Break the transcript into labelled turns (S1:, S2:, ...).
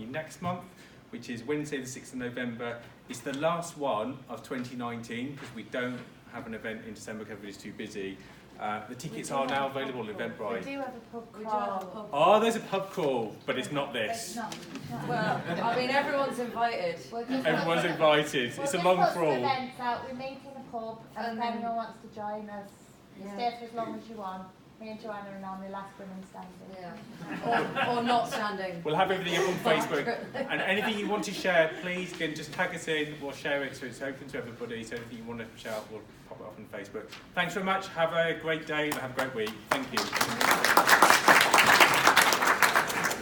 S1: next month, which is Wednesday, the 6th of November. It's the last one of 2019 because we don't have an event in December because everybody's too busy. Uh, the tickets
S2: do
S1: are
S2: have
S1: now
S2: a pub
S1: available on
S2: crawl.
S3: We
S1: Eventbrite.
S3: do have a pub
S2: We do have a
S3: crawl.
S2: pub.
S1: Oh, there's a pub call, but it's not
S3: It's
S1: this.
S3: not-
S2: Well, I mean, everyone's invited.
S3: we're just
S1: Everyone's
S3: not-
S1: invited.
S3: We'll
S1: It's a
S3: just
S1: long
S3: put some
S1: crawl.
S3: events out. We meet in a pub, and
S2: And
S3: if
S2: then-
S3: anyone wants to join us, you
S2: Yeah.
S3: stay for as long as you want. Me and Joanna are on the last women standing.
S2: Yeah. Or, or not standing.
S1: We'll have everything up on Facebook. And anything you want to share, please again just tag us in. We'll share it so it's open to everybody. So anything you want to shout, we'll pop it up on Facebook. Thanks very much. Have a great day and have a great week. Thank you.